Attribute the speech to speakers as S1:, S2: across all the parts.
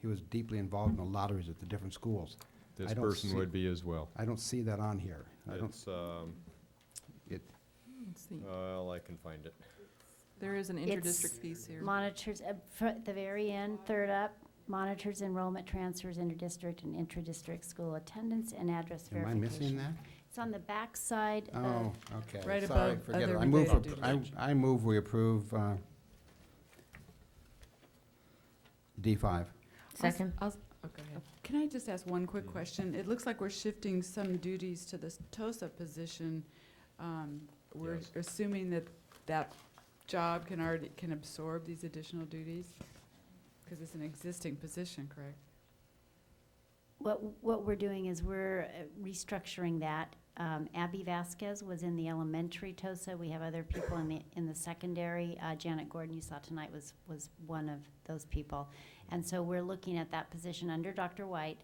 S1: He was deeply involved in the lotteries at the different schools.
S2: This
S1: I don't see-
S2: person would be as well.
S1: I don't see that on here. I don't,
S2: It's, um,
S1: it,
S3: It's the-
S2: well, I can find it.
S3: There is an
S4: It's
S3: interdistrict piece here.
S4: Monitors, uh, fr- at the very end, third up, monitors enrollment transfers interdistrict and intradistrict school attendance and address
S1: am I
S4: verification. Uh,
S1: missing that?
S4: It's on the backside
S1: Oh,
S4: of,
S1: okay.
S3: Right
S1: Sorry,
S3: above
S1: forget it.
S3: other
S1: I move,
S3: related
S1: appro- I, I move we approve, uh, D five.
S5: Second.
S3: I'll s- oh, go ahead. Can I just ask one quick question? It looks like we're shifting some duties to this TOSA position. Um, We're
S2: Yes.
S3: assuming that that job can already, can absorb these additional duties? Because it's an existing position, correct?
S4: what, what we're doing is we're uh, restructuring that. Um, Abby Vasquez was in the elementary TOSA. We have other people in the, in the secondary. Uh, Janet Gordon, you saw tonight, was, was one of those people. And so we're looking at that position under Dr. White,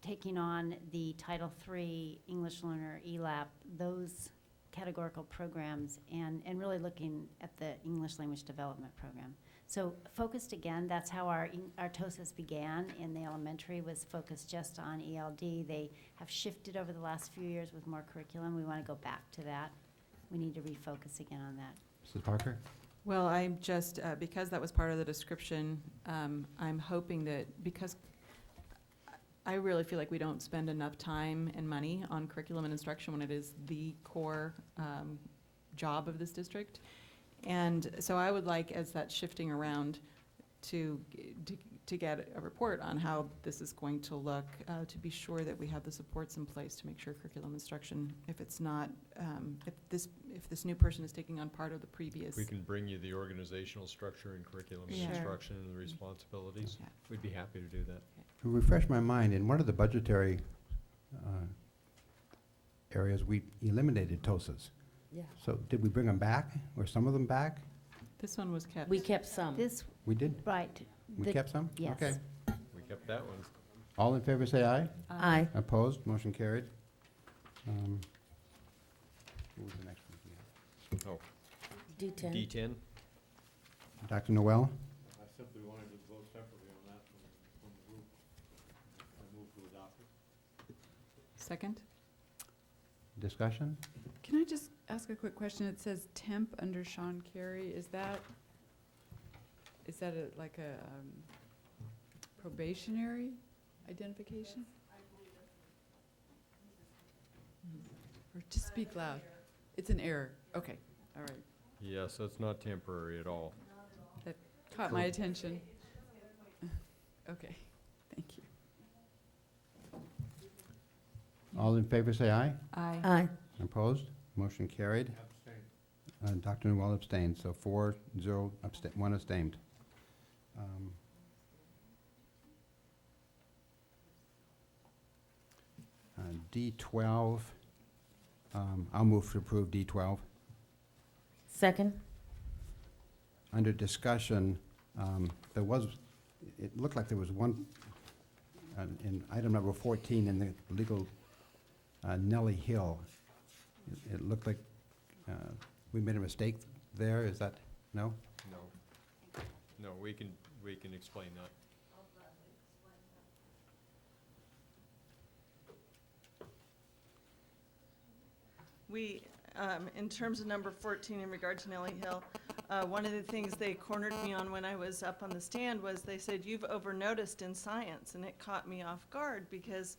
S4: taking on the Title III, English Learner, E ELAP, those categorical programs, and, and really looking at the English Language Development Program. So focused again, that's how our, en- our TOSAS began in the elementary, was focused just on ELD. They have shifted over the last few years with more curriculum. We want to go back to that. We need to refocus again on that.
S1: Mrs. Parker?
S6: Well, I'm just, uh, because that was part of the description, um, I'm hoping that, because I really feel like we don't spend enough time and money on curriculum and instruction when it is the core um, job of this district. And so I would like, as that's shifting around, to, g- to- to get a report on how this is going to look, uh, to be sure that we have the supports in place to make sure curriculum instruction, if it's not, um, if this, if this new person is taking on part of the previous.
S2: We can bring you the organizational structure and curriculum and
S6: Sure.
S2: instruction and the responsibilities.
S6: Yeah.
S2: We'd be happy to do that.
S1: To refresh my mind, in one of the budgetary uh, areas, we eliminated TOSAs.
S5: Yeah.
S1: So did we bring them back, or some of them back?
S6: This one was kept.
S5: We kept
S6: Oh.
S5: some.
S4: This,
S1: We did?
S4: right.
S1: We
S4: The-
S1: kept some?
S4: yes.
S1: Okay.
S2: We kept that one.
S1: All in favor, say aye.
S6: Uh,
S5: Aye.
S1: Opposed, motion carried. Um, What was the next one? Yeah.
S2: Oh, D
S5: D10.
S2: ten?
S1: Dr. Noel?
S7: I simply wanted to vote separately on that from, from the group. I move to adopt it.
S6: Second?
S1: Discussion?
S3: Can I just ask a quick question? It says temp under Sean Carey. Is that, is that a- like a um, probationary identification? Mm-hmm. Or just speak loud. It's an error. Okay, all right.
S2: Yeah, so it's not temporary at all.
S3: Caught my
S2: Cool.
S3: attention. Okay, thank you.
S1: All in favor, say aye.
S3: Aye.
S5: Aye.
S1: Opposed, motion carried.
S7: Abstain.
S1: Uh, Dr. Noel abstained, so four, zero, absta- one abstained. Um, uh, D12, um, I'll move to approve D12.
S5: Second.
S1: Under discussion, um, there was, it looked like there was one, uh, in item number 14 in the legal uh, Nellie Hill. It- It looked like uh, we made a mistake there, is that, no?
S2: No. No, we can, we can explain that.
S8: We, um, in terms of number 14 in regard to Nellie Hill, uh, one of the things they cornered me on when I was up on the stand was they said, you've overnoticed in science, and it caught me off guard because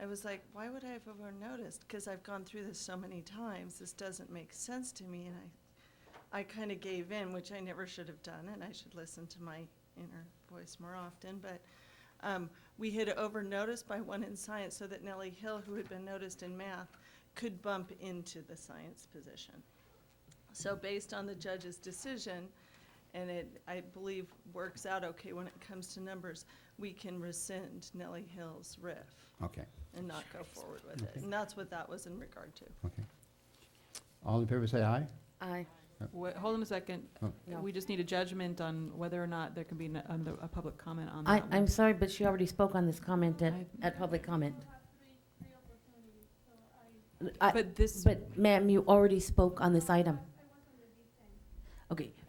S8: I was like, why would I have overnoticed? Because I've gone through this so many times, this doesn't make sense to me, and I, I kind of gave in, which I never should have done, and I should listen to my inner voice more often, but um, we had overnoticed by one in science so that Nellie Hill, who had been noticed in math, could bump into the science position. So based on the judge's decision, and it, I believe, works out okay when it comes to numbers, we can rescind Nellie Hill's RIF
S1: Okay,
S8: and not go forward with it.
S1: Okay.
S8: And that's what that was in regard to.
S1: okay. All in favor, say aye.
S5: Aye.
S6: Wait, hold on a second.
S1: Oh.
S5: No.
S6: We just need a judgment on whether or not there can be n- um, the- a public comment on
S5: I,
S6: that one.
S5: I'm sorry, but she already spoke on this comment at,
S6: I-
S5: at public comment. I,
S6: But this,
S5: but ma'am, you already spoke on this item. Okay,